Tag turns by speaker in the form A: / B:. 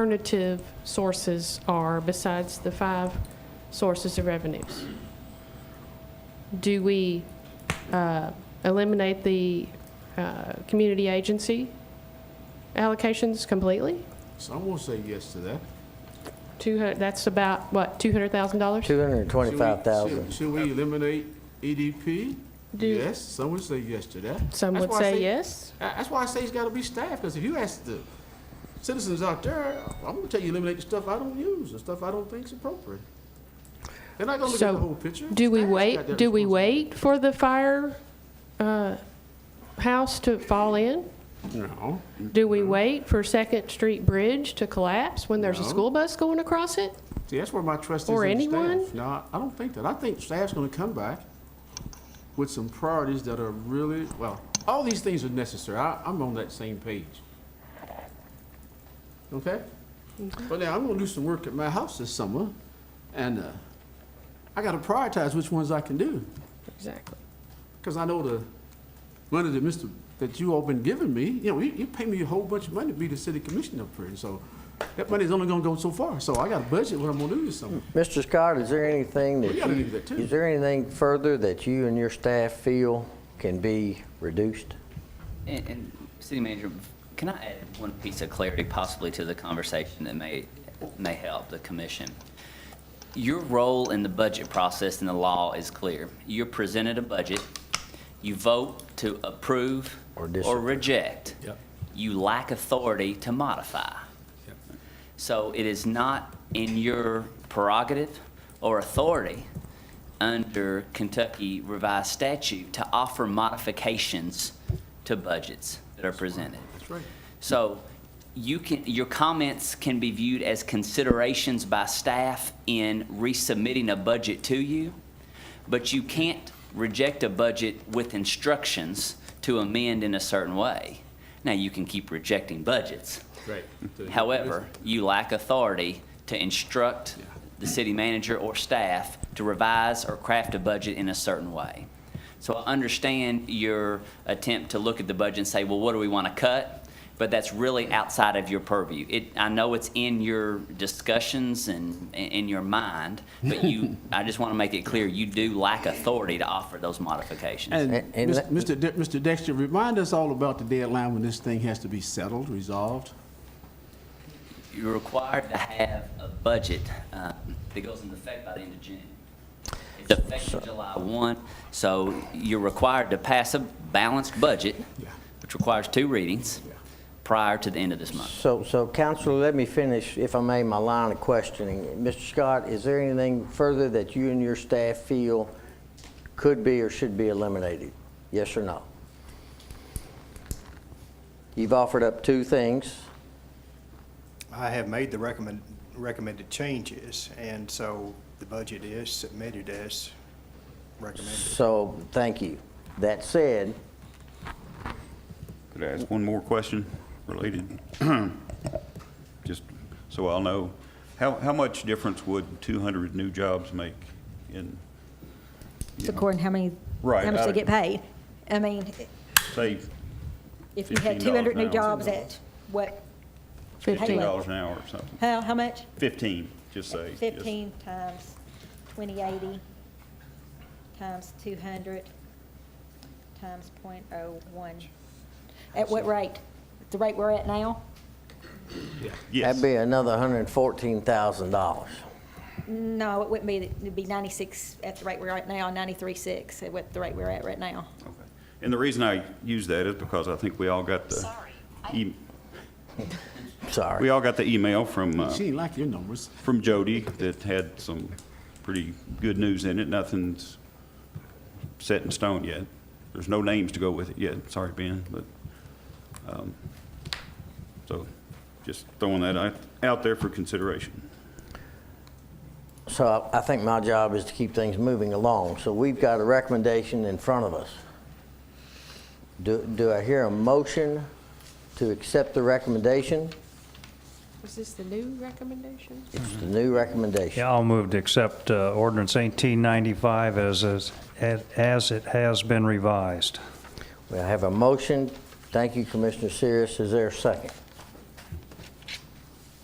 A: alternative sources are besides the five sources of revenues? Do we uh, eliminate the uh, community agency allocations completely?
B: So I'm gonna say yes to that.
A: Two hundred, that's about, what, two hundred thousand dollars?
B: Should we-
C: 225,000.
B: should- Should we eliminate EDP?
A: Do-
B: Yes, some would say yes to that.
A: Some
B: That's
A: would
B: why I
A: say yes.
B: I- That's why I say it's gotta be staffed, because if you ask the citizens out there, I'm gonna tell you eliminate the stuff I don't use, the stuff I don't think's appropriate. They're not gonna look at
A: So,
B: the whole picture.
A: Do we
B: Staff's got
A: wait,
B: that
A: do we
B: responsibility.
A: wait for the fire uh, house to fall in?
B: No.
A: Do we wait for Second Street Bridge to collapse when there's a
B: No.
A: school bus going across it?
B: See, that's where my trust is
A: Or
B: in
A: anyone?
B: staff. No, I- I don't think that. I think staff's gonna come back with some priorities that are really, well, all these things are necessary. I, I'm on that same page. Okay?
A: Mm-hmm.
B: But now, I'm gonna do some work at my house this summer, and, uh, I gotta prioritize which ones I can do,
A: Exactly.
B: because I know the money that Mr., that you all been giving me, you know, you, you pay me a whole bunch of money to be the city commissioner up here, so that money's only gonna go so far, so I gotta budget what I'm gonna do this summer.
C: Mr. Scott, is there anything that
B: We gotta
C: you,
B: do that too.
C: is there anything further that you and your staff feel can be reduced?
D: And, and City Manager, can I add one piece of clarity possibly to the conversation that may, may help the commission? Your role in the budget process and the law is clear. You're presented a budget, you vote to approve
C: Or
D: or
C: disapprove.
D: reject.
B: Yep.
D: You lack authority to modify. So it is not in your prerogative or authority under Kentucky revised statute to offer modifications to budgets that are presented.
B: That's right.
D: So you can, your comments can be viewed as considerations by staff in resubmitting a budget to you, but you can't reject a budget with instructions to amend in a certain way. Now, you can keep rejecting budgets.
B: Right.
D: However, you lack authority to instruct the city manager or staff to revise or craft a budget in a certain way. So I understand your attempt to look at the budget and say, well, what do we want to cut? But that's really outside of your purview. It, I know it's in your discussions and, and in your mind, but you, I just want to make it clear, you do lack authority to offer those modifications.
B: And
C: And- and
B: Mis- Mr.
C: let-
B: De- Mr. Dexter, remind us all about the deadline when this thing has to be settled, resolved.
D: You're required to have a budget um, that goes into effect by the end of June. It's effective July 1, so you're required to pass a balanced budget,
B: Yeah.
D: which requires two readings,
B: Yeah.
D: prior to the end of this month.
C: So, so Counselor, let me finish, if I may, my line of questioning. Mr. Scott, is there anything further that you and your staff feel could be or should be eliminated? Yes or no? You've offered up two things.
E: I have made the recommend, recommended changes, and so the budget is submitted as recommended.
C: So, thank you. That said,
F: Could I ask one more question related? Just so I'll know, how, how much difference would 200 new jobs make in,
G: It's according how many,
F: Right,
G: how much
F: I-
G: they get paid. I mean,
F: say,
G: if you had
F: $15
G: two hundred new
F: now.
G: jobs at, what,
F: $15
A: Fifteen.
G: Anyway.
F: an hour or something?
G: how, how much?
F: 15, just say. just-
G: Fifteen times twenty eighty, times two hundred, times point oh one. At what rate? The rate we're at now?
C: that'd
F: Yes,
C: be another $114,000.
G: No, it wouldn't be, it'd be ninety-six at the rate we're at now, ninety-three six at what the rate we're at right now.
F: Okay. and the reason I use that is because I think we all got the. e- We
C: Sorry.
F: all got the email from, uh,
B: She ain't like your numbers.
F: from Jody that had some pretty good news in it. Nothing's set in stone yet. There's no names to go with it yet. Sorry, Ben, but, um, so just throwing that out- out there for consideration.
C: So I- I think my job is to keep things moving along. So we've got a recommendation in front of us. Do do I hear a motion to accept the recommendation?
A: Is this the new recommendation?
C: It's the new recommendation.
H: Yeah, I'll move to accept uh, ordinance 1895 as, as, as it has been revised.
C: We have a motion. Thank you, Commissioner Sears. Is there a second?